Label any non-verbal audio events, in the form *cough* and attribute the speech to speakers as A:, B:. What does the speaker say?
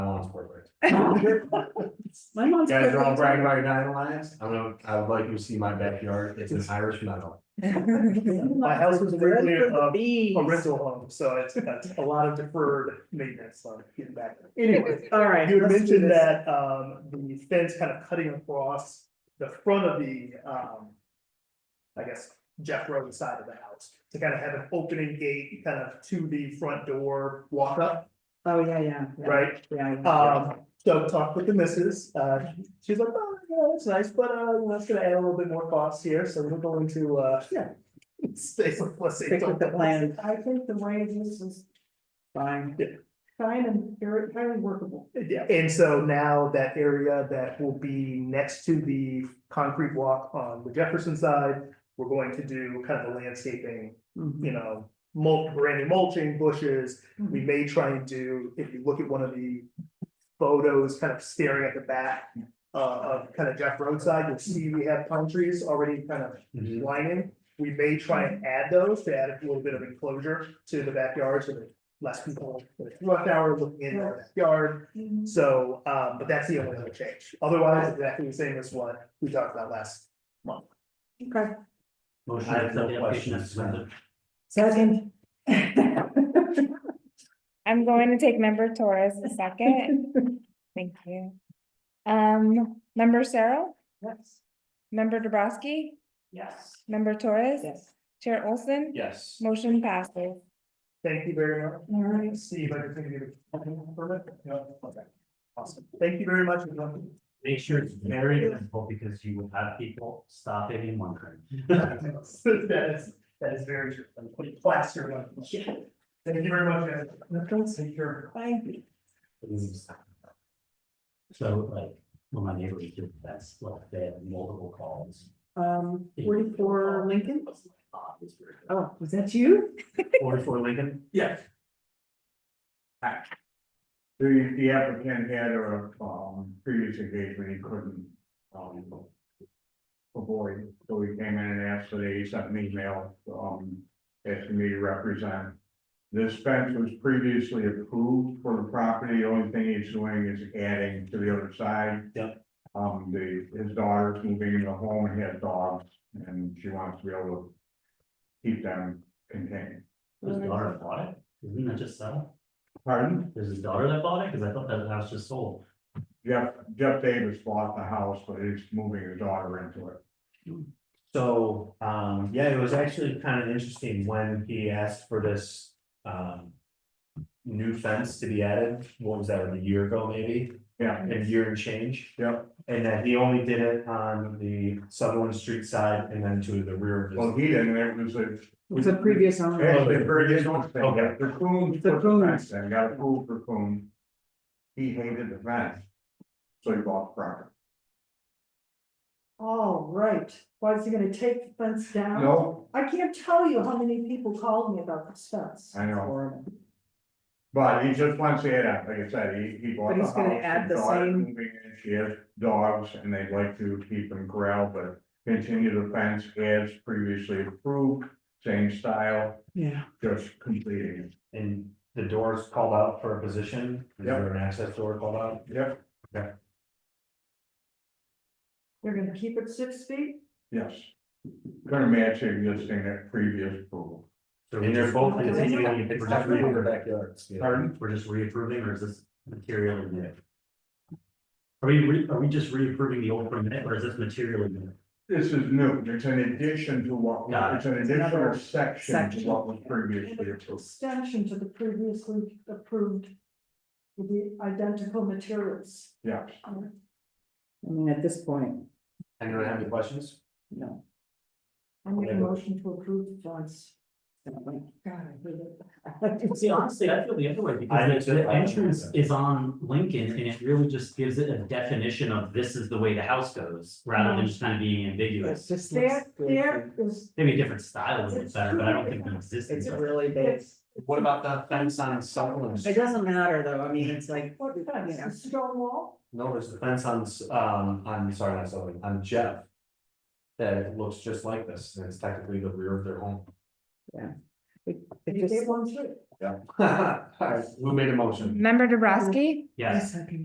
A: *laughs* My mom's.
B: Guys are all
A: perfect.
B: bragging about your nine lives, I don't know, I would like you to see my backyard, it's an Irish metal.
A: *laughs*
C: My house was originally
A: Good for
C: uh, a,
A: the bees.
C: a rental home, so it's, that's a lot of deferred maintenance on getting back.
A: *laughs*
C: Anyway,
A: All right.
C: you had
A: let's do
C: mentioned
A: this.
C: that, um, the fence kind of cutting across the front of the, um, I guess Jeff Road side of the house, to kind of have an opening gate kind of to the front door walk up,
A: Oh, yeah, yeah. yeah,
C: right?
A: Yeah. yeah.
C: Um, so talked with the missus, uh, she's like, oh, yeah, that's nice, but, uh, that's gonna add a little bit more cost here, so we're going to, uh, *laughs* yeah. Stay with, let's say.
A: Stick with the plan. I think the way this is. Fine.
C: Yeah.
A: Fine and very, very workable.
C: Yeah, and so now that area that will be next to the concrete walk on the Jefferson side, we're going to do kind of a landscaping,
A: Mhm.
C: you know, mulch, brand new mulching, bushes, we may try and do, if you look at one of the photos kind of staring at the back uh, of kind of Jeff roadside, you'll see we have pine trees already kind of lining. We may try and add those to add a little bit of enclosure to the backyard so that less people, rush hour looking in our backyard.
A: Mhm.
C: So, um, but that's the only other change. Otherwise, exactly the same as what we talked about last month.
A: Okay,
B: Motion
D: I have
B: with no
D: no
B: questions.
D: questions.
A: second.
E: I'm going to take member Torres
A: *laughs*
E: a second. Thank you. Um, member Sarah,
A: Yes.
E: member Dubrasky,
A: Yes.
E: member Torres,
A: Yes.
E: Chair Olson,
D: Yes.
E: motion passes.
C: Thank you very much.
A: All right.
C: Steve, I just think you have a permit? No? Okay. Awesome. Thank you very much. *laughs* everyone.
D: Make sure it's very visible because you will have people stopping and wondering.
C: That is, that is very true. I'm putting plaster on. it. Thank you very much, guys. Thank you.
A: Bye.
D: So like, when my neighbors do that's like, they have multiple calls.
A: Um, forty-four Lincoln?
D: Forty-four
A: Oh, was that you?
D: Lincoln?
B: Yes.
F: The, the applicant had a, um, previous engagement he couldn't, um, avoid, so he came in and asked that he sent an email, um, asking me to represent. This fence was previously approved for the property, the only thing he's doing is adding to the other side.
D: Yep.
F: Um, the, his daughter's moving into the home, he has dogs, and she wants to be able to keep them contained.
D: His daughter that bought it? Isn't that just sell?
F: Pardon?
D: There's his daughter that bought it? Cause I thought that house just sold.
F: Jeff, Jeff Davis bought the house, but he's moving his daughter into it.
B: So, um, yeah, it was actually kind of interesting when he asked for this, um. New fence to be added, what was that, a year ago maybe,
F: Yeah,
B: a year and change?
F: Yep.
B: And that he only did it on the Sutherland Street side and then to the rear of
F: well,
B: his.
F: he didn't, it was a.
A: It was a previous owner.
F: Actually, the previous one, they got the Coons
A: The
F: put
A: Coons.
F: the fence in, got approved for Coon. He hated the fence. So he bought the property.
A: All right. Why is he gonna take the fence down?
F: No,
A: I can't tell you how many people called me about this fence.
F: I know.
A: Horrible.
F: but he just wants to add up, like I said, he, he bought
A: But
F: the
A: he's
F: house.
A: gonna add
F: his
A: the
F: daughter's
A: same-
F: moving in, She has dogs and they'd like to keep them corralled, but continue the fence as previously approved, same style,
A: Yeah.
F: just completing it.
B: And the doors called out for a position, is
F: Yep.
B: there an access door called out?
F: Yep,
A: They're gonna keep it six feet?
F: yes. Gonna match the existing that previous approval.
D: So
B: And they're both
A: Okay.
B: continuing, it's not really in the backyards. yeah.
F: Pardon?
D: We're just reapproving or is this material in there? Are we, re- are we just reapproving the old permit or is this material in there?
F: This is new, it's an addition to what,
D: Got it.
F: it's an additional
A: Another
F: section to
A: section.
F: what was previously
A: An
F: approved.
A: Extension to the previously approved. With the identical materials.
F: Yes,
A: I mean, at this point,
B: Anyone have any questions?
A: no. I make a
B: Whatever.
A: motion to approve the fence. God, I hate it.
D: See, honestly, I feel the other way
B: I do
D: because the
B: too.
D: the entrance is on Lincoln and it really just gives it a definition of this is the way the house goes, rather than just kind of being ambiguous.
C: just
A: There, there is,
D: Maybe a different style would be better, but I don't think it exists. in such-
G: really big.
A: it's,
G: What about the fence on Sutherland? It doesn't matter though, I mean, it's like,
A: what
G: you
A: fence,
G: know,
A: a stone wall?
B: No, there's the fence on, S- um, I'm sorry, not Sullivan, on Jeff. That looks just like this, and it's technically the rear of their home. *laughs*
A: They gave one too.
B: Yeah. All right, who made a motion?
E: Member Dubrasky?
D: Yes.